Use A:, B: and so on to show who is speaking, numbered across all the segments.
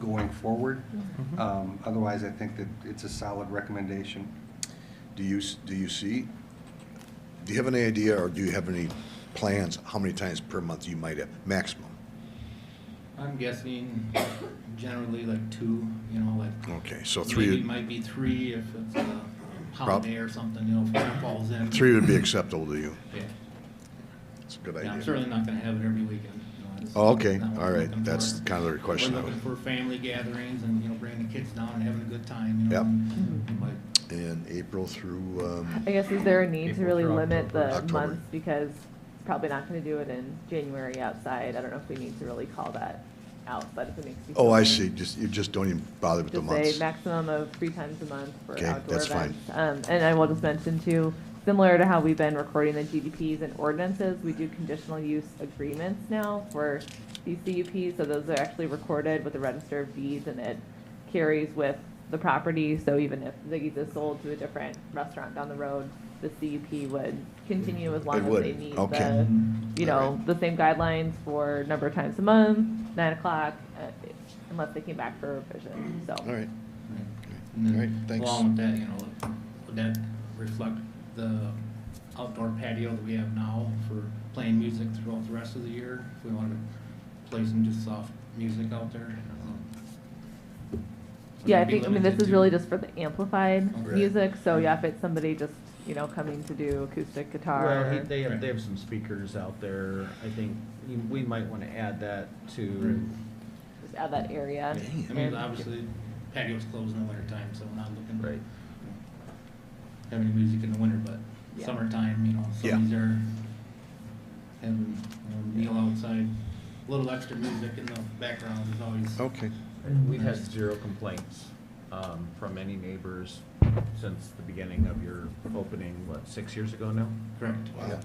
A: going forward. Um, Otherwise, I think that it's a solid recommendation.
B: Do you, s- do you see, do you have any idea or do you have any plans, how many times per month you might have, maximum?
C: I'm guessing generally like two, you know, like.
B: Okay, so
C: Maybe
B: three,
C: it might be three if it's a holiday or something, you know, if it falls in.
B: three would be acceptable to you.
C: Yeah,
B: It's a good
C: Yeah, I'm
B: idea.
C: certainly not gonna have it every weekend. you know, that's
B: Oh, Okay,
C: not what
B: all
C: we're
B: right,
C: looking
B: that's
C: for.
B: kind of the question.
C: We're
B: I
C: looking
B: would-
C: for family gatherings and, you know, bringing the kids down and having a good time, you know.
B: Yep.
C: and- but-
B: In April through, um,
D: I guess is there a need to
E: April
D: really
E: through
D: limit the
B: October. October.
D: months because it's probably not gonna do it in January outside. I don't know if we need to really call that out, but if it makes you.
B: oh,
D: feel
B: I
D: better.
B: see, just, you just don't even bother with the
D: Just say
B: months.
D: maximum of three times a month for
B: Okay,
D: outdoor
B: that's fine.
D: events. Um, and I will just mention too, similar to how we've been recording the GDPs and ordinances, we do conditional use agreements now for these CUPs. So those are actually recorded with the register of deeds and it carries with the property. So even if Ziggy's is sold to a different restaurant down the road, the CUP would continue as long
B: It
D: as
B: would,
D: they meet
B: okay.
D: the, you
B: All
D: know, the same guidelines for number of times a month, nine o'clock, uh, unless they came back for revision, so.
B: All right,
C: And
B: All right,
C: then
B: thanks.
C: Along with that, you know, would that reflect the outdoor patio that we have now for playing music throughout the rest of the year? If we wanted to play some just soft music out there? um, would
D: Yeah, I
C: that be
D: think, I mean,
C: limited
D: this is
C: to-
D: really just for the amplified
C: Right.
D: music, so yeah, if it's somebody just, you know, coming to do acoustic guitar.
E: Well, he-
D: or-
E: they have,
C: Right.
E: they have some speakers out there. I think you- we might want to add that to,
D: Just add that area.
C: I mean,
D: And-
C: obviously patio's closed in the winter time, so we're not looking.
E: Right.
C: Have any music in the winter, but
D: Yeah.
C: summertime, you know,
B: Yeah.
C: some of these are having, you know, meal outside, a little extra music in the background is always.
B: okay.
E: we've had zero complaints um, from any neighbors since the beginning of your opening, what, six years ago now?
C: Correct.
B: Wow.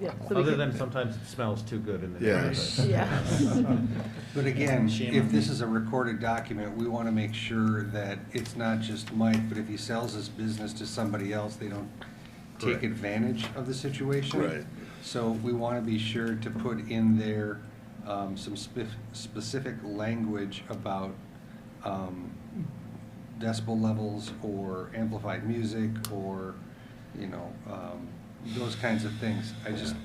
D: Yeah, so we
E: Other
D: could-
E: than sometimes it smells too good in the
B: Yes.
E: neighborhood.
D: Yeah.
A: But again,
C: Shame
A: if
C: on
A: this
C: me.
A: is a recorded document, we want to make sure that it's not just Mike, but if he sells his business to somebody else, they don't take
B: Correct.
A: advantage of the situation.
B: Right.
A: So we want to be sure to put in there um, some spef- specific language about um, decibel levels or amplified music or, you know, um, those kinds of things. I just,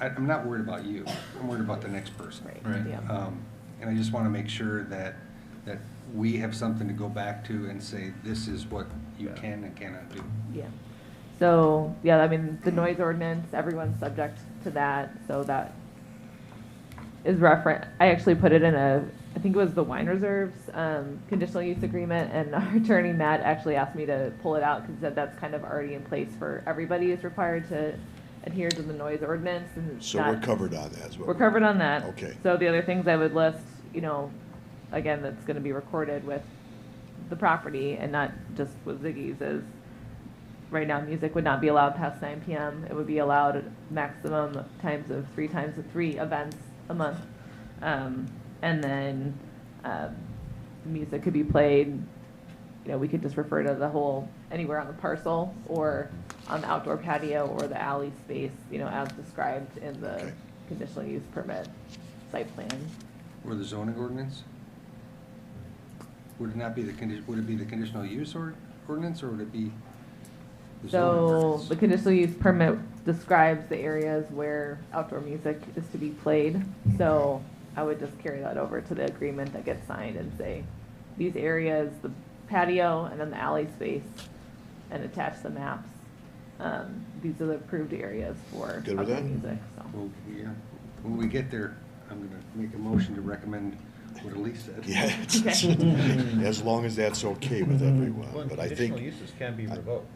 A: I- I'm not worried about you. I'm worried about the next person.
C: Right.
D: Right, yeah.
A: Um, And I just want to make sure that, that we have something to go back to and say, this is what you
E: Yeah.
A: can and cannot do.
D: Yeah. So, yeah, I mean, the noise ordinance, everyone's subject to that, so that is referent, I actually put it in a, I think it was the wine reserves, um, conditional use agreement, and our attorney Matt actually asked me to pull it out, because said that's kind of already in place for, everybody is required to adhere to the noise ordinance, and it's
B: So we're
D: not-
B: covered on that as well.
D: we're covered on that.
B: Okay.
D: So the other things I would list, you know, again, that's gonna be recorded with the property and not just with Ziggy's is, right now, music would not be allowed past nine PM. It would be allowed at maximum of times of three times of three events a month. Um, and then, um, music could be played, you know, we could just refer to the whole, anywhere on the parcel or on the outdoor patio or the alley space, you know, as described in the
B: Okay.
D: conditional use permit site plan.
A: Or the zoning ordinance? Would it not be the condi, would it be the conditional use or, ordinance, or would it be the zoning
D: So
A: ordinance?
D: the conditional use permit describes the areas where outdoor music is to be played. So I would just carry that over to the agreement that gets signed and say, these areas, the patio and then the alley space, and attach the maps. Um, These are the approved areas for
B: Good with
D: outdoor
B: that?
D: music, so.
A: Well, yeah, when we get there, I'm gonna make a motion to recommend what Elise said.
B: Yeah, it's- it's- as long as that's okay with everyone, but I think.
E: Conditional uses can be
B: I-
E: revoked.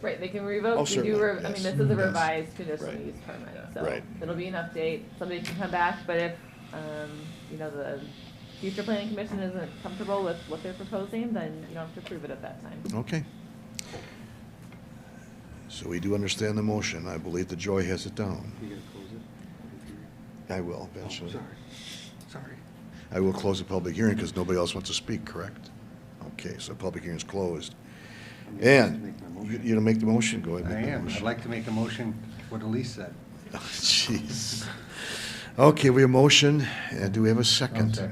D: Right, they can
B: Oh,
D: revoke, we do,
B: certainly,
D: re- I mean,
B: yes,
D: this is a
B: yes.
D: revised conditional
B: Right.
D: use permit,
E: Yeah.
D: so
B: Right.
D: it'll be an update, somebody can come back, but if, um, you know, the future planning commission isn't comfortable with what they're proposing, then you don't have to approve it at that time.
B: Okay. So we do understand the motion. I believe that Joy has it down.
A: You gonna close it?
B: I will eventually.
A: Oh, Sorry, sorry.
B: I will close the public hearing because nobody else wants to speak, correct? Okay, so public hearing's closed.
A: I'm gonna
B: And,
A: make my
B: you
A: motion.
B: you gonna make the motion? Go ahead.
A: I
B: make the
A: am, I'd
B: motion. Oh,
A: like to make a motion what Elise said.
B: Jeez. Okay, we have motion, and do we have a second?
E: second.